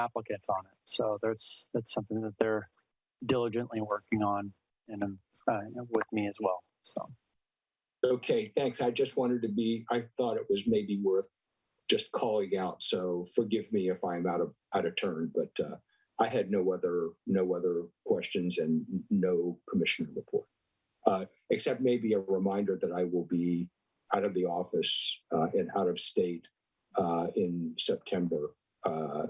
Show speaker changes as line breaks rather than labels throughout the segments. applicant on it. So that's, that's something that they're diligently working on and um, uh, with me as well. So,
Okay, thanks. I just wanted to be, I thought it was maybe worth just calling out. So forgive me if I'm out of, out of turn, but uh, I had no other, no other questions and no commissioner report. Uh, Except maybe a reminder that I will be out of the office uh, and out of state uh, in September. Uh,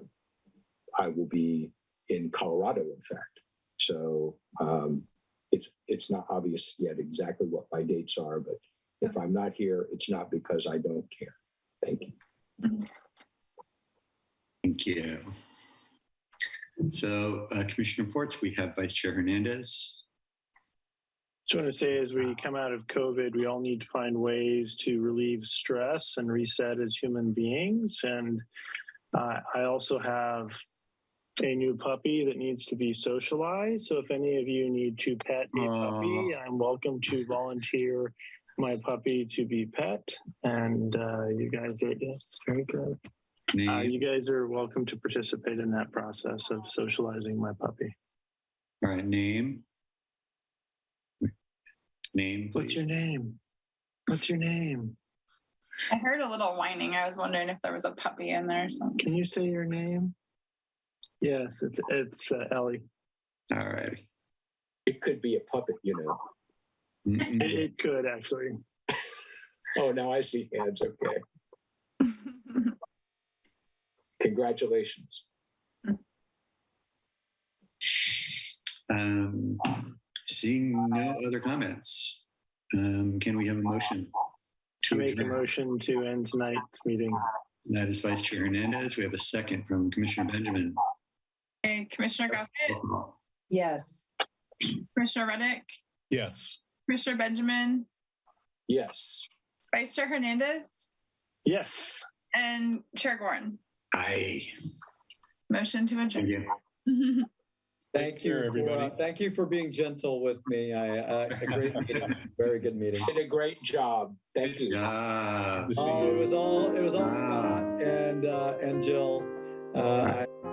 I will be in Colorado, in fact. So um, it's it's not obvious yet exactly what my dates are, but if I'm not here, it's not because I don't care. Thank you.
Thank you. So uh, Commissioner reports, we have Vice Chair Hernandez.
Just want to say, as we come out of COVID, we all need to find ways to relieve stress and reset as human beings. And uh, I also have a new puppy that needs to be socialized. So if any of you need to pet a puppy, I'm welcome to volunteer my puppy to be pet. And uh, you guys are yes, very good. Uh,
Name.
you guys are welcome to participate in that process of socializing my puppy.
All right, name. Name,
What's
please.
your name? What's your name?
I heard a little whining. I was wondering if there was a puppy in there or something.
Can you say your name? Yes, it's it's uh, Ellie.
All right.
It could be a puppet, you know.
Mm-mm.
It, it could actually.
Oh, now I see hands. Okay. Congratulations.
Um, Seeing no other comments, um, can we have a motion?
To make a
adjourn?
motion to end tonight's meeting.
That is Vice Chair Hernandez. We have a second from Commissioner Benjamin.
Okay, Commissioner Gossett,
Roll call.
Yes.
Commissioner Reddick,
Yes.
Commissioner Benjamin,
Yes.
Vice Chair Hernandez,
Yes.
and Chair Gorin.
Aye.
Motion to
Thank
adjourn.
you.
Take
Thank you,
care,
for,
everybody.
uh, Thank you for being gentle with me. I, uh, a great meeting, very good meeting.
Did a great job. Thank
Good
you.
job.
Good to see
Oh,
you.
it was all, it was all
Ah.
Scott and, uh, and Jill. Uh, I